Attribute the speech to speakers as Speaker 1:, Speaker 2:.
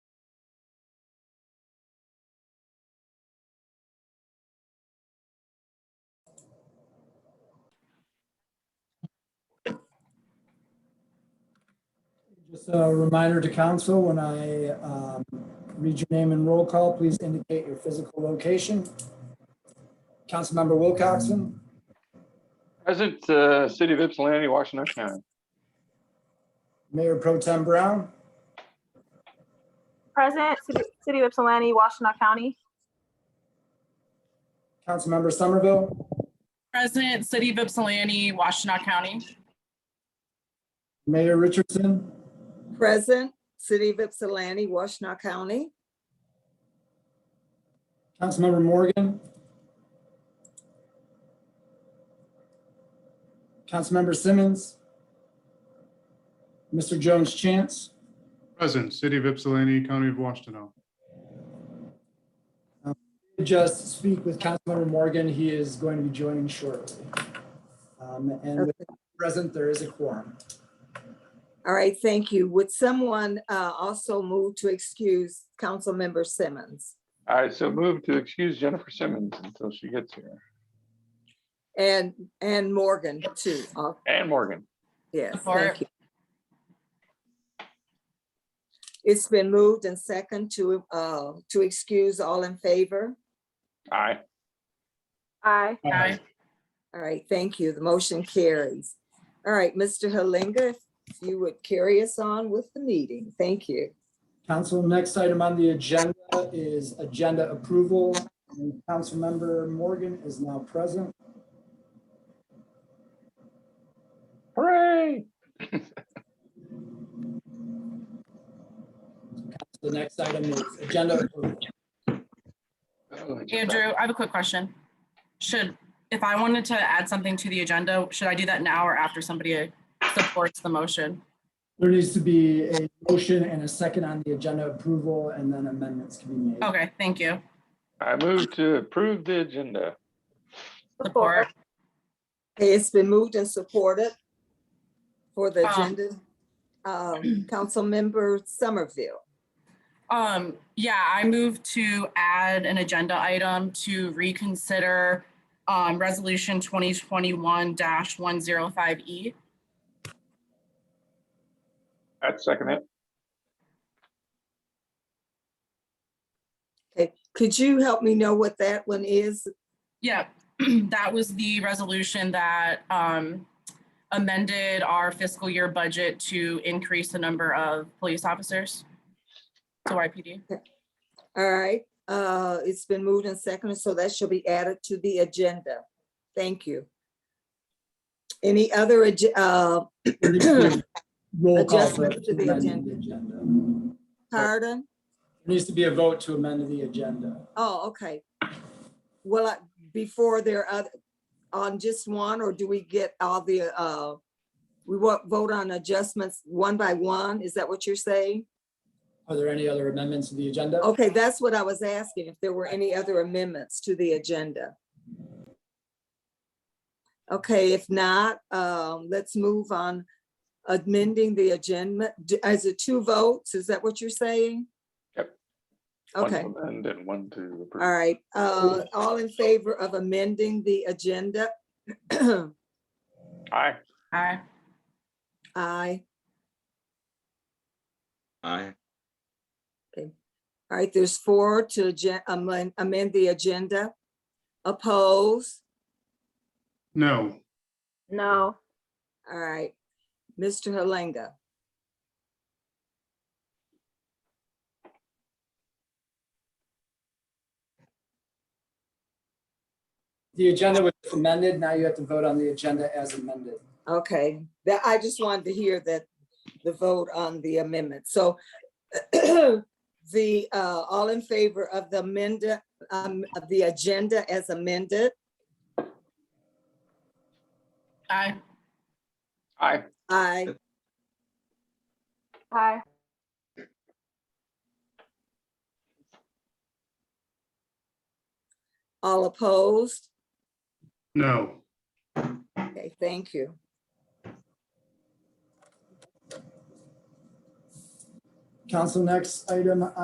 Speaker 1: Just a reminder to council, when I um, read your name and roll call, please indicate your physical location. Councilmember Wilcoxen,
Speaker 2: Present, uh, City of Ypsilanti, Washington County.
Speaker 1: Mayor Pro Tem Brown,
Speaker 3: Present, City- City of Ypsilanti, Washtenaw County.
Speaker 1: Councilmember Somerville,
Speaker 4: President, City of Ypsilanti, Washtenaw County.
Speaker 1: Mayor Richardson,
Speaker 5: Present, City of Ypsilanti, Washtenaw County.
Speaker 1: Councilmember Morgan. Councilmember Simmons. Mr. Jones Chance,
Speaker 6: Present, City of Ypsilanti, County of Washtenaw.
Speaker 1: just speak with Councilmember Morgan. He is going to be joining shortly. Um, And with present, there is a quorum.
Speaker 5: All right, thank you. Would someone uh, also move to excuse Councilmember Simmons?
Speaker 2: All right, so move to excuse Jennifer Simmons until she gets here.
Speaker 5: And, and Morgan too. Uh,
Speaker 2: And Morgan.
Speaker 5: Yes,
Speaker 4: Support.
Speaker 5: thank you. It's been moved and second to, uh, to excuse all in favor.
Speaker 2: Aye.
Speaker 3: Aye.
Speaker 4: Aye.
Speaker 5: All right, thank you. The motion carries. All right, Mr. Halinga, if you would carry us on with the meeting. Thank you.
Speaker 1: Council, next item on the agenda is agenda approval. And Councilmember Morgan is now present.
Speaker 2: Hooray.
Speaker 1: The next item is agenda approval.
Speaker 5: Oh,
Speaker 4: Andrew, I have a quick question. Should, if I wanted to add something to the agenda, should I do that now or after somebody supports the motion?
Speaker 1: There needs to be a motion and a second on the agenda approval, and then amendments can be made.
Speaker 4: Okay, thank you.
Speaker 2: I move to approve the agenda.
Speaker 4: Support.
Speaker 5: Okay, it's been moved and supported for the
Speaker 4: Um,
Speaker 5: agenda. Um, Councilmember Somerville,
Speaker 4: Um, yeah, I move to add an agenda item to reconsider um, Resolution 2021-105E.
Speaker 2: I'd second it.
Speaker 5: could you help me know what that one is?
Speaker 4: Yeah, that was the resolution that um, amended our fiscal year budget to increase the number of police officers to YPD.
Speaker 5: All right, uh, it's been moved and seconded, so that shall be added to the agenda. Thank you. Any other, ag- uh,
Speaker 1: There needs to be Roll call.
Speaker 5: Adjustments
Speaker 1: vote
Speaker 5: to the
Speaker 1: amend
Speaker 5: agenda.
Speaker 1: agenda.
Speaker 5: pardon?
Speaker 1: There needs to be a vote to amend the agenda.
Speaker 5: Oh, okay. Well, I- before there are, oth- on just one, or do we get all the, uh, we wa- vote on adjustments one by one? Is that what you're saying?
Speaker 1: Are there any other amendments to the agenda?
Speaker 5: Okay, that's what I was asking, if there were any other amendments to the agenda. Okay, if not, um, let's move on amending the agenda. D- Is it two votes? Is that what you're saying?
Speaker 2: Yep.
Speaker 5: Okay,
Speaker 2: And then one to
Speaker 5: all
Speaker 2: approve.
Speaker 5: right. Uh, all in favor of amending the agenda?
Speaker 2: Aye.
Speaker 4: Aye.
Speaker 5: Aye.
Speaker 7: Aye,
Speaker 5: All right, there's four to agen- amend, amend the agenda. Oppose?
Speaker 6: No,
Speaker 3: No.
Speaker 5: All right. Mr. Halenga?
Speaker 1: The agenda was amended. Now you have to vote on the agenda as amended.
Speaker 5: Okay, that, I just wanted to hear that, the vote on the amendment, so the, uh, all in favor of the amendment, um, of the agenda as amended,
Speaker 4: Aye.
Speaker 2: Aye.
Speaker 5: aye,
Speaker 3: Aye.
Speaker 5: all opposed?
Speaker 6: no.
Speaker 5: Okay, thank you.
Speaker 1: Council, next item